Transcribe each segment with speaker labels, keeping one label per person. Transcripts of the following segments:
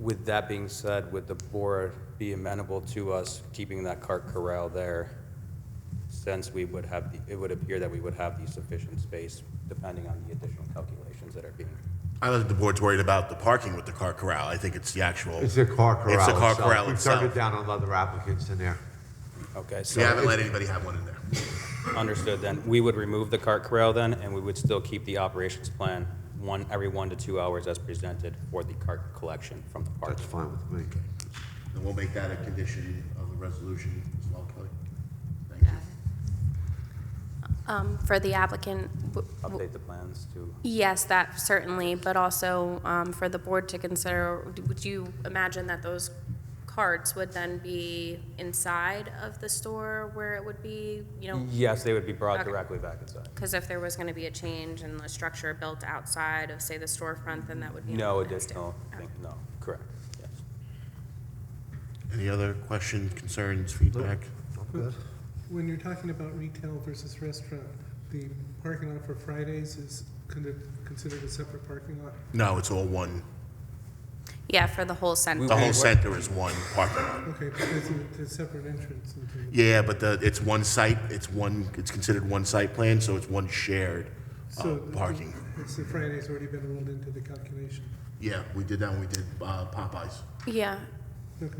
Speaker 1: With that being said, would the board be amenable to us keeping that cart corral there? Since we would have, the- it would appear that we would have the sufficient space, depending on the additional calculations that are being.
Speaker 2: I don't think the board's worried about the parking with the car corral. I think it's the actual.
Speaker 3: It's a car corral.
Speaker 2: It's a car
Speaker 3: itself.
Speaker 2: corral
Speaker 3: We've turned
Speaker 2: itself.
Speaker 3: it down on other applicants in there.
Speaker 1: Okay,
Speaker 2: We
Speaker 1: so
Speaker 2: haven't let anybody have one in there.
Speaker 1: understood then. We would remove the cart corral then, and we would still keep the operations plan one, every one to two hours as presented for the cart collection from the park.
Speaker 3: That's fine with me.
Speaker 2: And we'll make that a condition of the resolution as well, Kelly. Thank you.
Speaker 4: Um, For the applicant, w- w-
Speaker 1: Update the plans to,
Speaker 4: yes, that certainly, but also um, for the board to consider, would you imagine that those carts would then be inside of the store where it would be, you know?
Speaker 1: yes, they would be brought
Speaker 4: Okay.
Speaker 1: directly back inside.
Speaker 4: Because if there was going to be a change in the structure built outside of, say, the storefront, then that would be.
Speaker 1: No
Speaker 4: an exterior.
Speaker 1: additional,
Speaker 4: Oh.
Speaker 1: thing- no, correct, yes.
Speaker 2: Any other questions, concerns, feedback?
Speaker 3: I'm good.
Speaker 5: When you're talking about retail versus restaurant, the parking lot for Fridays is kind of considered a separate parking lot?
Speaker 2: No, it's all one.
Speaker 4: Yeah, for the whole center.
Speaker 2: The whole center is one parking lot.
Speaker 5: Okay, because it's a separate entrance into the,
Speaker 2: Yeah, but the, it's one site, it's one, it's considered one site plan, so it's one shared uh,
Speaker 5: so.
Speaker 2: parking.
Speaker 5: It's the Friday's already been rolled into the calculation.
Speaker 2: Yeah, we did that when we did uh, Popeyes.
Speaker 4: Yeah,
Speaker 5: Okay.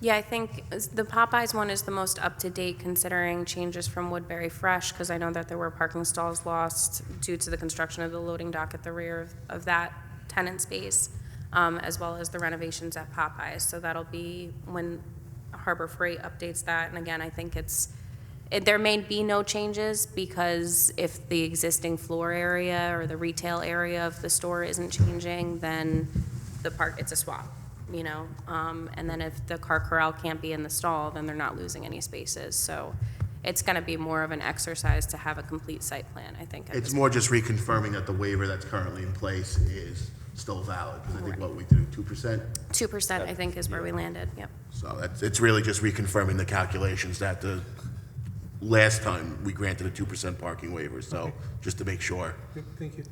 Speaker 4: yeah, I think is- the Popeyes one is the most up-to-date considering changes from Woodbury Fresh, because I know that there were parking stalls lost due to the construction of the loading dock at the rear of- of that tenant space, um, as well as the renovations at Popeyes. So that'll be when Harbor Freight updates that, and again, I think it's, it- There may be no changes because if the existing floor area or the retail area of the store isn't changing, then the park, it's a swap, you know? Um, And then if the car corral can't be in the stall, then they're not losing any spaces. So it's going to be more of an exercise to have a complete site plan, I think. at
Speaker 2: It's
Speaker 4: this-
Speaker 2: more just reconfirming that the waiver that's currently in place is still valid, because I think what we do, two percent?
Speaker 4: 2%, I think, is where we landed, yep.
Speaker 2: So that's, it's really just reconfirming the calculations that the, last time we granted a two percent parking waiver, so just to make sure.
Speaker 5: Th- Thank you.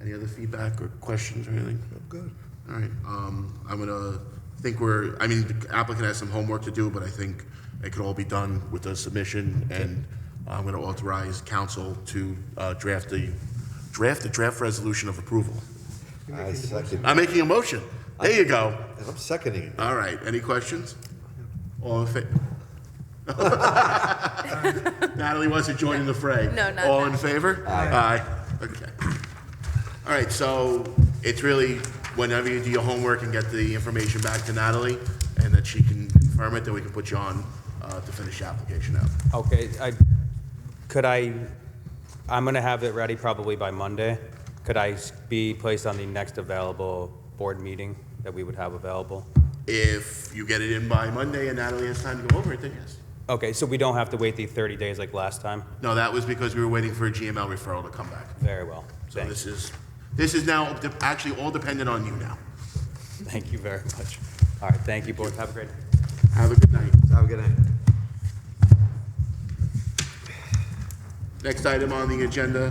Speaker 2: Any other feedback or questions or anything? Good. All right, um, I'm gonna, think we're, I mean, the applicant has some homework to do, but I think it could all be done with the submission, and I'm gonna authorize council to, uh, draft the, draft the draft resolution of approval.
Speaker 3: I second.
Speaker 2: I'm making a motion. There you go.
Speaker 3: I'm seconding it.
Speaker 2: All right, any questions? All in favor? Natalie wants to join in the fray.
Speaker 4: No, not
Speaker 2: All in favor? Aye. Okay. All right, so it's really whenever you do your homework and get the information back to Natalie, and that she can confirm it, then we can put you on uh, to finish the application out.
Speaker 1: Okay, I, could I, I'm gonna have it ready probably by Monday. Could I s- be placed on the next available board meeting that we would have available?
Speaker 2: If you get it in by Monday and Natalie has time to go over it, then yes.
Speaker 1: Okay, so we don't have to wait the 30 days like last time?
Speaker 2: No, that was because we were waiting for a GML referral to come back.
Speaker 1: Very well.
Speaker 2: So
Speaker 1: Thank,
Speaker 2: this is, this is now de- actually all dependent on you now.
Speaker 1: thank you very much. All right, thank you, board. Have a great night.
Speaker 2: Have a good night.
Speaker 3: Have a good night.
Speaker 2: Next item on the agenda,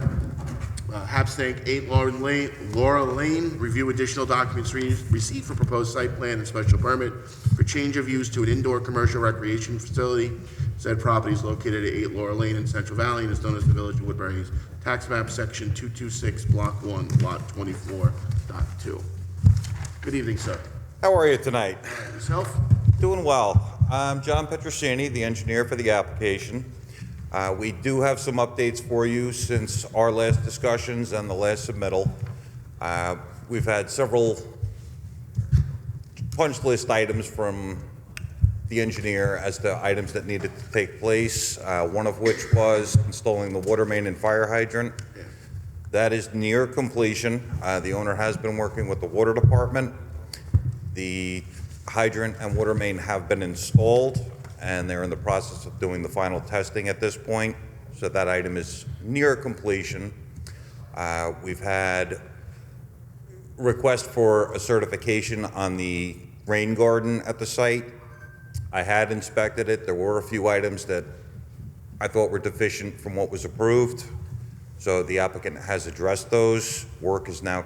Speaker 2: uh, Hapstank 8 Lauren Lane, Laura Lane, review additional documents re- received for proposed site plan and special permit for change of use to an indoor commercial recreation facility. Said property is located at 8 Laura Lane in Central Valley and is known as the Village of Woodbury's Tax Map, Section 226, Block 1, Lot 24.2. Good evening, sir.
Speaker 6: How are you tonight?
Speaker 2: Yourself?
Speaker 6: Doing well. I'm John Petrosini, the engineer for the application. Uh, We do have some updates for you since our last discussions and the last submittal. Uh, We've had several punch list items from the engineer as to items that needed to take place, uh, one of which was installing the water main and fire hydrant. That is near completion. Uh, The owner has been working with the water department. The hydrant and water main have been installed, and they're in the process of doing the final testing at this point, so that item is near completion. Uh, We've had request for a certification on the rain garden at the site. I had inspected it. There were a few items that I thought were deficient from what was approved. So the applicant has addressed those. Work is now